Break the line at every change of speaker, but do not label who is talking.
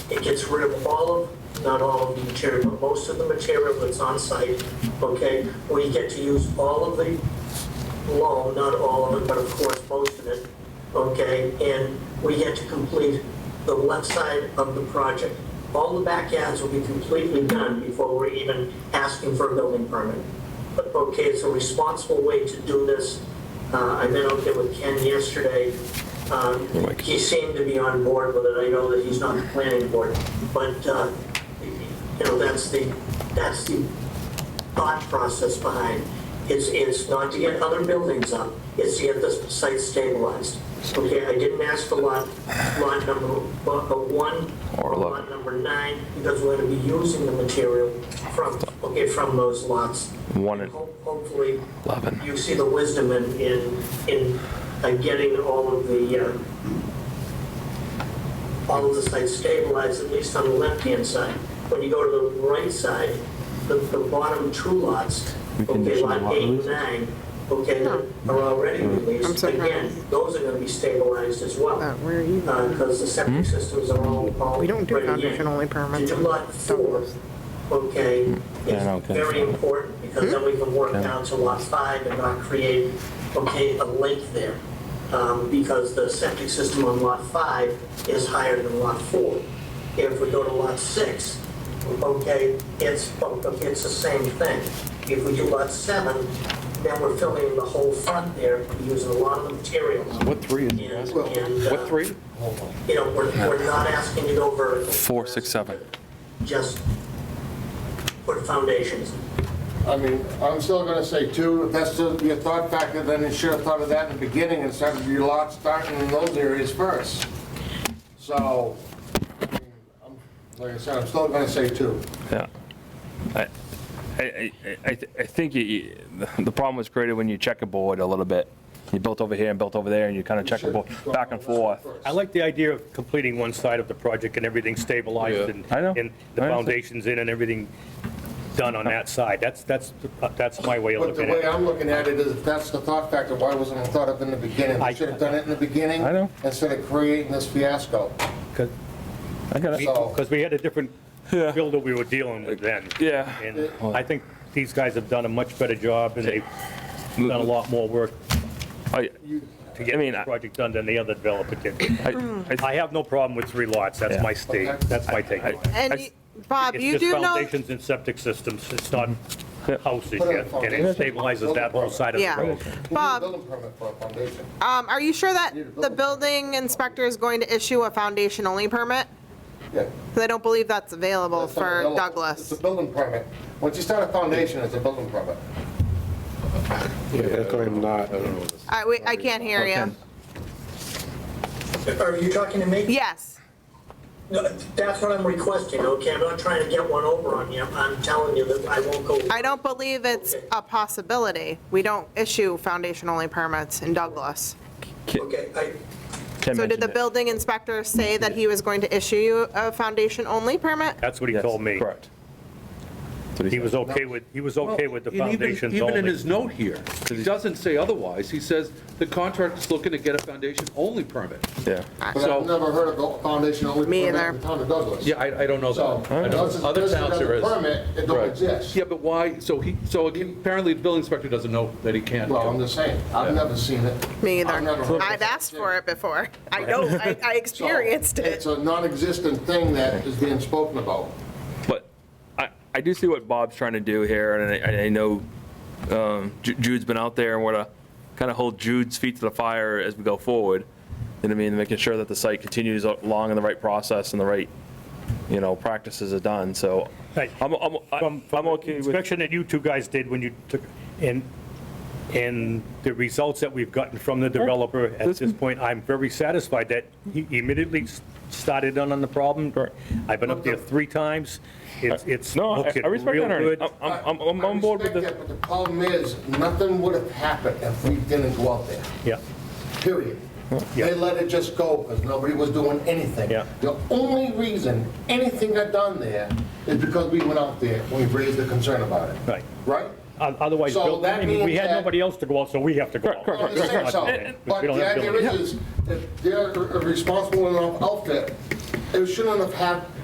It gets rid of all of, not all of the material, but most of the material that's on site, okay? We get to use all of the loan, not all of it, but of course, most of it, okay? And we get to complete the left side of the project. All the backyards will be completely done before we're even asking for a building permit. But, okay, it's a responsible way to do this. Uh, I met out there with Ken yesterday. Um,
Mike.
He seemed to be on board with it. I know that he's not the planning board, but, uh, you know, that's the, that's the thought process behind is, is not to get other buildings up, it's to get the site stabilized. Okay, I didn't ask for lot, lot number, lot uh, one,
Or
or
eleven.
lot number nine, because we're gonna be using the material from, okay, from those lots.
One and-
Ho- Hopefully,
Eleven.
you see the wisdom in, in, in uh, getting all of the, uh, all of the sites stabilized, at least on the left-hand side. When you go to the right side, the, the bottom two lots, okay,
condition the
lot
lot
eight and
releases? Mm.
nine, okay, are already released.
I'm sorry.
Again, those are gonna be stabilized as well.
Uh, where are you?
Because the
Hmm?
septic systems are all, all.
We don't do
ready in.
foundation-only permits
To
on
Lot four,
those.
okay,
Yeah, no,
is
okay.
very important, because then we can work down to lot five and not create, okay, a lake there. Um, Because the septic system on lot five is higher than lot four. If we go to lot six, okay, it's, it's the same thing. If we do lot seven, then we're filling in the whole front there, using a lot of material.
What three is
And- and, uh,
What three?
You know, we're, we're not asking to go vertical.
Four, six, seven.
Just put foundations.
I mean, I'm still gonna say two, if that's still your thought factor, then you should have thought of that in the beginning instead of your lot starting in those areas first. So, I mean, I'm- like I said, I'm still gonna say two.
Yeah. I, I, I- I, th- I think you- you, the problem was created when you checkerboard a little bit. You built over here and built over there, and you kind of checkerboard back and forth.
I like the idea of completing one side of the project and everything stabilized and,
I know.
and the
I understand.
foundations in and everything done on that side. That's, that's, that's my way of
But the
looking
way
at it.
I'm looking at it is, if that's the thought factor, why wasn't it thought of in the beginning?
I-
We should have done it in the beginning.
I know.
Instead of creating this fiasco.
I got it.
So-
Because we had a different
Yeah.
builder we were dealing with then.
Yeah.
And I think these guys have done a much better job and they've done a lot more work
I,
to get
I mean,
this
I-
project done than the other developer did.
I, I,
I have no problem with three lots. That's
Yeah.
my state.
Okay.
That's my take on it.
And
I-
you- Bob, you
It's just
do know,
foundations and septic systems, it's not houses
Put in
yet, and it
foundation.
stabilizes that whole side of
Yeah.
the road.
We need a
Bob,
building permit for a foundation.
um, are you sure that
Need a
the
building.
building inspector is going to issue a foundation-only permit?
Yeah.
'Cause I don't believe that's available
That's not
for
available. It's
Douglas.
a building permit. Once you start a foundation, it's a building permit.
Yeah, that's why I'm not.
I, we- I can't hear you.
Are you talking to me?
Yes,
No, That's what I'm requesting, okay? I'm not trying to get one over on you. I'm telling you that I won't go.
I don't believe it's a possibility. We don't issue foundation-only permits in Douglas.
Okay, I,
Ken
So did
mentioned
the
it.
building inspector say that he was going to issue you a foundation-only permit?
That's what he
Yes,
told me.
Correct. That's what
He
said.
was okay with, he was okay with the
And even-
foundations
Even in
only.
his note here, he doesn't say otherwise. He says the contractor's looking to get a foundation-only permit.
Yeah.
But I've
So,
never heard of a foundation only
Me
permit
either.
in the town of Douglas.
yeah, I, I don't know.
So,
that. I don't know.
unless it's
Other
listed
towns
as a
there is.
permit, it don't
Right.
exist.
Yeah, but why, so he, so apparently the building inspector doesn't know that he can't.
Well, I'm just saying, I've never seen it.
Me
I've never heard
either.
of
I've
it.
asked for it before. I know, I, I
So,
experienced it.
It's a non-existent thing that is being spoken about.
But I, I do see what Bob's trying to do here, and I, I know um, Ju- Jude's been out there, and we're gonna kind of hold Jude's feet to the fire as we go forward. You know what I mean, making sure that the site continues along in the right process and the right, you know, practices are done, so
Right.
I'm, I'm,
From,
I'm I'm
from the
okay with,
inspection that you two guys did when you took, and, and the results that we've gotten from the developer at
This-
this point, I'm very satisfied that he immediately s- started on, on the problem. I've been up there three times. It's, it's
no, I-
looking
I respect
real
that, Ernie.
good.
I'm, I'm, I'm on board with
I respect
the,
that, but the problem is, nothing would have happened if we didn't go out there.
Yeah.
period. They let it just go because nobody was doing anything.
Yeah.
The only reason anything got done there is because we went out there and we raised the concern about it.
Right.
Right?
O- Otherwise,
So
Bill- I
that
mean, we
means
had
that-
nobody else to go out, so we have to go out.
I'm just saying so. But
uh, We don't
the
have
idea
Bill.
is, is if they're a responsible enough outfit, it shouldn't have happened,